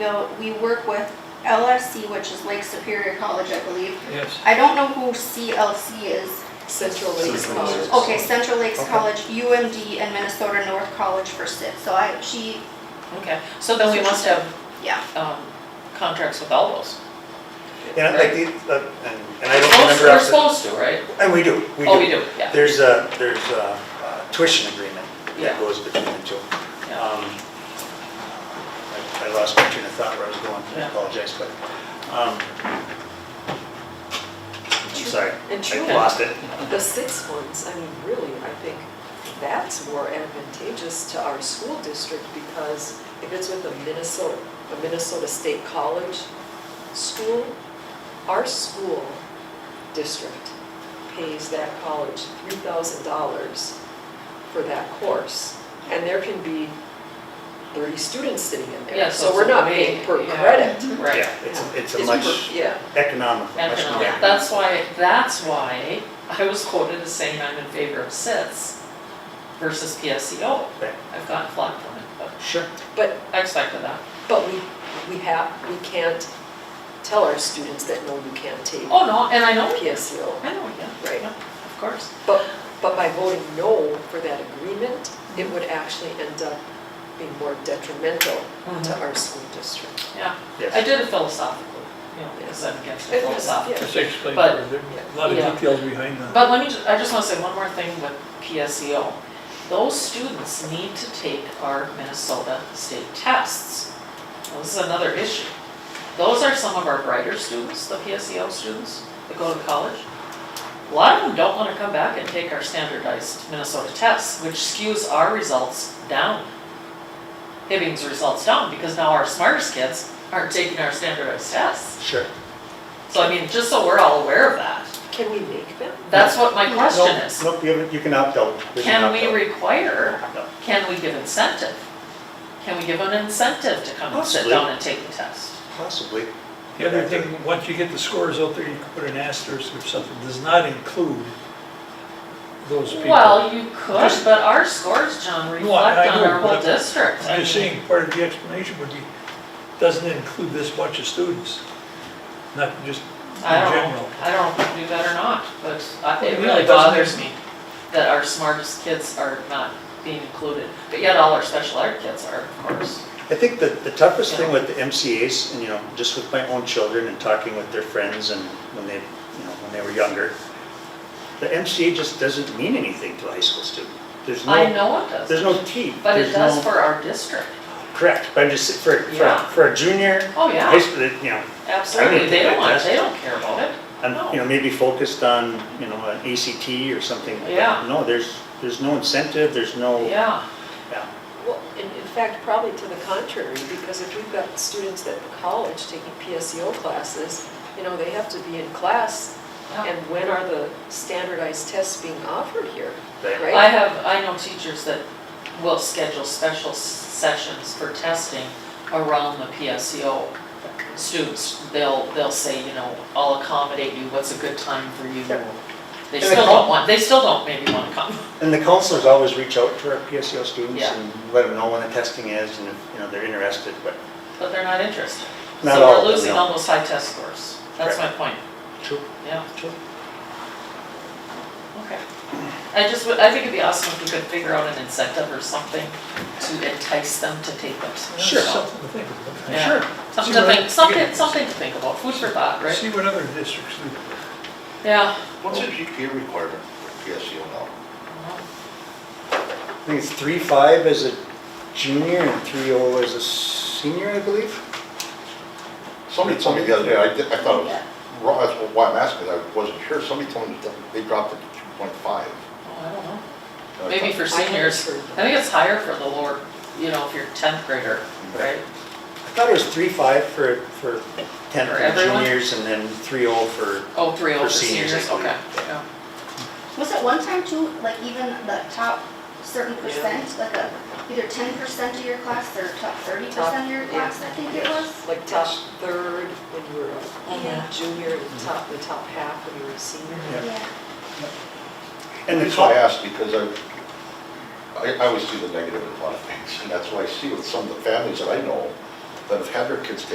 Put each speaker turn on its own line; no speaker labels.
Bill, we work with LSC, which is Lake Superior College, I believe.
Yes.
I don't know who CLC is.
Central Lakes
Central Lakes.
College.
Okay, Central Lakes
Okay.
College, UMD, and Minnesota North College for SIP. So I, she,
Okay, so then we must have
yeah.
um, contracts with all those.
And like, the- uh, and and I don't
Well,
remember.
We're
off the-
supposed to, right?
And we do, we do.
Oh, we do, yeah.
There's a, there's a uh, tuition agreement
Yeah.
that goes between the two.
Yeah.
Um, I I lost my train of thought where I was going, I
Yeah.
apologize, but, um, I'm sorry,
And
I
true.
lost it.
The six ones, I mean, really, I think that's more advantageous to our school district because if it's with a Minnesota, a Minnesota State College school, our school district pays that college three thousand dollars for that course. And there can be thirty students sitting in
Yeah,
there,
so
so we're
it's a
not
way-
paying per
yeah.
credit.
Right.
Yeah, it's, a- it's a
It's
much
per- Yeah.
economical,
And
much more.
uh, that's why, that's why I was quoted as saying I'm in favor of SITs versus PSEO.
Right.
I've gotten flack from it, but
Sure.
But
I expected that.
But we, we have, we can't tell our students that, no, you can't take
Oh, no, and I know,
PSEO.
I know, yeah,
Right.
yeah, of course.
But, but by voting no for that agreement, it would actually end up being more detrimental to our school district.
Yeah,
Yes.
I did it philosophically, you know, because I'm against the
It was-
philosophical.
yeah.
explained,
But-
a
lot of yeah.
details behind that.
But let me, ju- I just wanna say one more thing with PSEO. Those students need to take our Minnesota state tests. Now, This is another issue. Those are some of our brighter students, the PSEO students that go to college. A lot of them don't wanna come back and take our standardized Minnesota tests, which skews our results down. Hibbing's results down, because now our smartest kids aren't taking our standardized tests.
Sure.
So I mean, just so we're all aware of that,
Can we make them?
that's what my question
Nope,
is.
Nope, you have- you can opt out. There's an
Can
opt
we
out.
require,
No.
can we give incentive? Can we give an incentive to come and sit
Possibly.
down and take the test?
Possibly.
The other thing, once you get the scores out there, you can put an asterisk or something, does not include those people.
Well, you could,
Just-
but our scores, John,
No, I- I
reflect on
know,
our whole
but I'm-
district. I
I'm just
mean,
saying, part of the explanation would be, doesn't include this bunch of students, not just in
I don't know,
general.
I don't know if we do that or not, but I-
Well,
it
yeah,
really
it doesn't-
bothers me that our smartest kids are not being included, but yet all our special ed kids are, of course.
I think that the toughest thing with the MCA's, and you know, just with my own children and talking with their friends and when they, you know, when they were younger, the MCA just doesn't mean anything to a high school student. There's
I
no,
know it
there's
does,
no T.
but it
there's
does
no-
for our district.
Correct, but I'm just, for, for,
Yeah.
for a junior,
Oh,
high
yeah,
school, you know,
absolutely, they
think
don't
it
want,
does.
they don't care about it.
and,
No.
you know, maybe focused on, you know, an ACT or something. but
Yeah.
No, there's, there's no incentive, there's no.
Yeah,
Yeah.
Well, in, in fact, probably to the contrary, because if we've got students at the college taking PSEO classes, you know, they have to be in class.
Yeah.
And when are the standardized tests being offered here,
They-
right?
I have, I know teachers that will schedule special s- sessions for testing around the PSEO students. They'll, they'll say, you know, I'll accommodate you, what's a good time for you? They
And they
still
come-
don't want, they still don't maybe want to come.
And the counselors always reach out to our PSEO students
Yeah.
and let them know when the testing is and if, you know, they're interested, but
But they're not interested.
Not all of
So
them,
we're losing
no.
all those high test scores. That's my point,
True,
yeah,
true.
okay. I just, would- I think it'd be awesome if we could figure out an incentive or something to entice them to take those.
That's
Sure.
Something to think about.
Yeah. Something
See
to
what-
think, something, something to think about, food for thought, right?
See what other districts do.
Yeah.
What's the GPA requirement for PSU now?
I think it's three five as a junior and three oh as a senior, I believe.
Somebody told me the other day, I did- I thought it was wrong, that's why I'm asking, I wasn't sure, somebody told me that they dropped it to two point five.
Oh, I don't know. Maybe for
I haven't
seniors,
heard
I think it's higher for the lower, you know, if you're tenth grader,
Mm-hmm.
right?
I thought it was three five for, for ten
For
for
everyone?
juniors and then three oh for,
Oh, three oh
For
for
seniors,
seniors,
I believe.
okay, yeah.
Was it one time too, like even the top certain percent, like a, either ten percent of your class or top thirty percent of your
Top, yeah.
class, I think it was?
like top third when you were a junior, and top, the top half when you were a senior.
Yeah.
Yeah.
and the
So I
top.
asked because I, I I always see the negative in a lot of things, and that's why I see with some of the families that I know, that have had their kids taken